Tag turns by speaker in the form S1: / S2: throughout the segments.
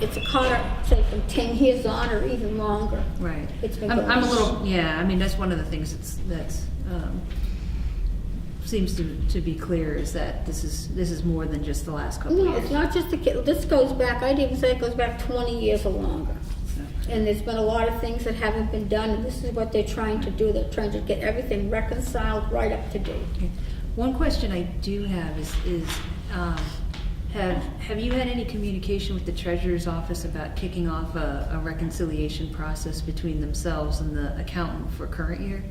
S1: it's a car, say from ten years on or even longer.
S2: Right.
S1: It's been
S2: I'm, I'm a
S1: going.
S2: little, yeah, I mean, that's one of the things that's, that's, um, seems to, to be clear is that this is, this is more than just the last couple
S1: No,
S2: of
S1: it's
S2: years.
S1: not just the kid, this goes back, I'd even say it goes back twenty years or longer. And there's been a lot of things that haven't been done, and this is what they're trying to do, they're trying to get everything reconciled right up to date.
S2: Okay. One question I do have is, is, um, have, have you had any communication with the treasurer's office about kicking off a, a reconciliation process between themselves and the accountant for current year?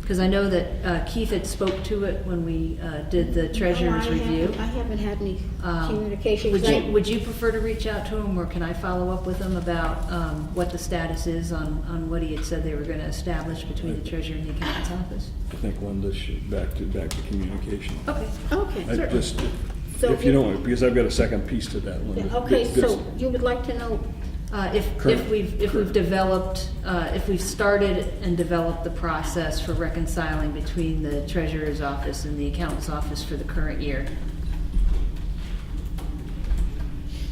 S2: Because I know that uh, Keith had spoke to it when we uh, did the treasurer's
S1: Oh, I haven't-
S2: review.
S1: I haven't had any
S2: Um,
S1: communication.
S2: Would
S1: 'cause I-
S2: you, would you prefer to reach out to him, or can I follow up with him about um, what the status is on, on what he had said they were going to establish between the treasurer and the accountant's office?
S3: I think Linda should back to, back to communication.
S2: Okay.
S3: I
S1: Okay,
S3: just,
S1: So
S3: if you
S1: we-
S3: don't, because I've got a second piece to that, Linda.
S1: okay,
S3: This-
S1: so you would like to know,
S2: Uh, If, if
S3: Correct.
S2: we've, if we've
S3: Correct.
S2: developed, uh, if we've started and developed the process for reconciling between the treasurer's office and the accountant's office for the current year.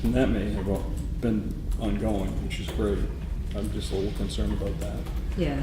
S3: And that may have all been ongoing, which is great. I'm just a little concerned about that.
S2: Yeah,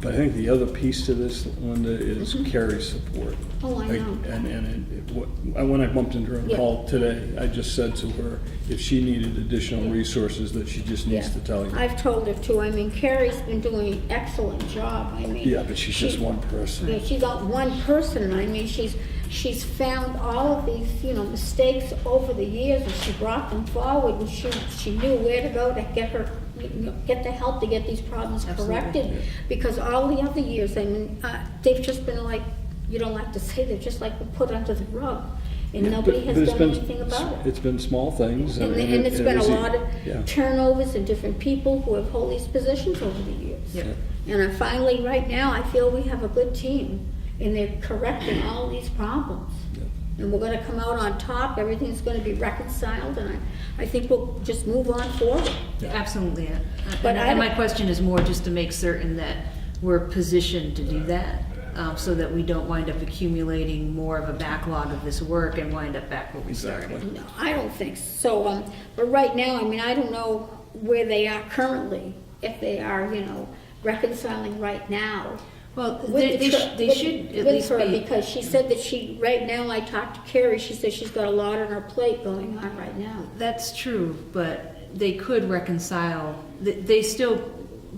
S3: But I think the other piece to this, Linda, is Carrie's support.
S1: Mm-hmm. Oh, I know.
S3: And, and it- it, what, I- when I bumped into her on
S1: Yeah.
S3: call today, I just said to her, if she needed additional resources, that she just
S1: yeah.
S3: needs to tell you.
S1: I've told her too, I mean, Carrie's been doing an excellent job, I mean.
S3: Yeah, but she's just
S1: she-
S3: one person.
S1: Yeah, she's not one person, I mean, she's, she's found all of these, you know, mistakes over the years, and she brought them forward, and she, she knew where to go to get her, you know, get the help to get these problems
S2: Absolutely.
S1: corrected. Because all the other years, I mean, uh, they've just been like, you don't like to say, they've just like been put under the rug, and
S3: Yeah,
S1: nobody has
S3: but- but it's
S1: done
S3: been-
S1: anything about it.
S3: It's been small things.
S1: And,
S3: it-
S1: and it's
S3: it
S1: been a
S3: was e-
S1: lot
S3: yeah.
S1: of turnovers and different people who have held these positions over the years.
S2: yeah.
S1: And I finally, right now, I feel we have a good team, and they're correcting all these problems.
S3: Yeah.
S1: And we're gonna come out on top, everything's gonna be reconciled, and I, I think we'll just move on forward.
S2: Absolutely. yeah.
S1: But
S2: And
S1: I
S2: and my
S1: don't-
S2: question is more just to make certain that we're positioned to do that, um, so that we don't wind up accumulating more of a backlog of this work and wind up back where we started.
S3: Exactly.
S1: No, I don't think so, um, but right now, I mean, I don't know where they are currently, if they are, you know, reconciling right now.
S2: Well,
S1: with
S2: they,
S1: the
S2: they
S1: tr-
S2: should, they
S1: with-
S2: should at
S1: with
S2: least
S1: her,
S2: be,
S1: Because she said that she, right now, I talked to Carrie, she said she's got a lot on her plate going on right now.
S2: that's true, but they could reconcile, they, they still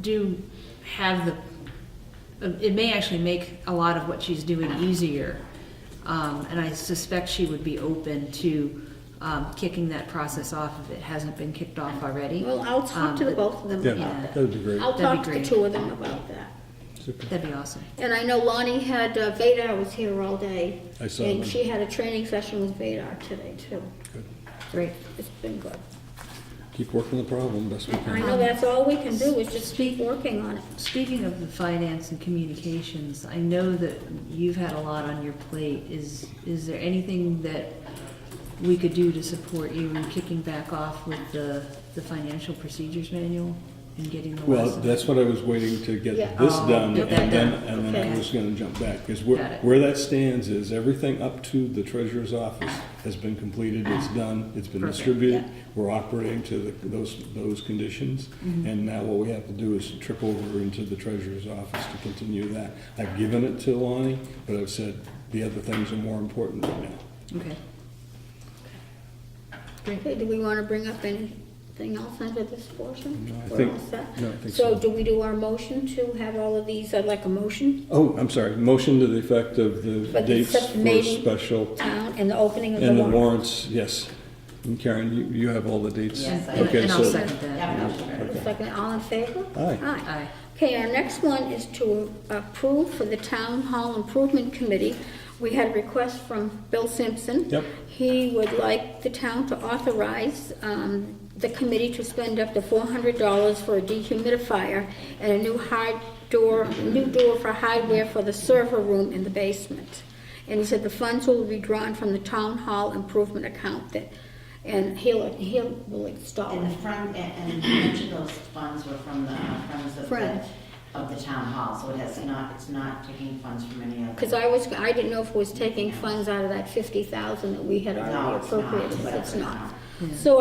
S2: do have the, it may actually make a lot of what she's doing easier. Um, and I suspect she would be open to, um, kicking that process off if it hasn't been kicked off already.
S1: Well, I'll talk
S2: Um,
S1: to the both of them
S3: Yeah,
S1: about that.
S3: that'd be great.
S1: I'll
S2: That'd be
S1: talk to the
S2: great.
S1: two of them about that.
S3: Super.
S2: That'd be awesome.
S1: And I know Lonnie had, uh, Vadar was here all day.
S3: I saw
S1: And
S3: him.
S1: she had a training session with Vadar today, too.
S3: Good.
S2: Great.
S1: It's been good.
S3: Keep working the problem best we
S1: I
S3: can.
S1: know that's all we can do, is just keep
S2: Speak-
S1: working on it.
S2: Speaking of the finance and communications, I know that you've had a lot on your plate. Is, is there anything that we could do to support you in kicking back off with the, the financial procedures manual and getting the
S3: Well,
S2: lessons?
S3: that's what I was waiting to get
S1: Yeah.
S3: this
S2: Oh,
S3: done,
S2: get
S3: and
S2: that
S3: then,
S2: done.
S3: and then I
S1: Okay.
S3: was gonna jump back, because
S2: Got
S3: where,
S2: it.
S3: where that stands is everything up to the treasurer's office has been completed, it's done, it's been
S2: Perfect,
S3: distributed,
S2: yeah.
S3: we're operating to the, those, those conditions,
S1: Mm-hmm.
S3: and now what we have to do is trip over into the treasurer's office to continue that. I've given it to Lonnie, but I've said the other things are more important right now.
S2: Okay.
S1: Okay, do we want to bring up anything else under this portion?
S3: No, I
S1: We're
S3: think-
S1: all set?
S3: no, I think so.
S1: do we do our motion to have all of these, I'd like a motion,
S3: Oh, I'm sorry, motion to the effect
S1: For
S3: of the
S1: the
S3: dates for
S1: subcommittee.
S3: special
S1: town, and the opening of the
S3: and the
S1: warrant?
S3: warrants, yes. And Karen, you, you have all the dates?
S2: Yes, I-
S3: Okay,
S2: and I'll
S3: so-
S2: second that.
S1: Second, all in favor?
S3: Aye.
S2: Aye.
S1: Okay, our next one is to approve for the Town Hall Improvement Committee. We had a request from Bill Simpson.
S3: Yep.
S1: He would like the town to authorize um, the committee to spend up to $400 for a dehumidifier and a new hard door, new door for hardware for the server room in the basement. And he said the funds will be drawn from the Town Hall Improvement Account that, and he'll, he'll will install it.
S4: And the front, and and much of those funds were from the funds of
S1: Friends.
S4: the, of the town hall, so it has not, it's not taking funds from any other.
S1: Because I was, I didn't know if it was taking funds out of that fifty thousand that we had
S4: No,
S1: already
S4: it's not.
S1: appropriated, but it's
S4: Exactly.
S1: not. So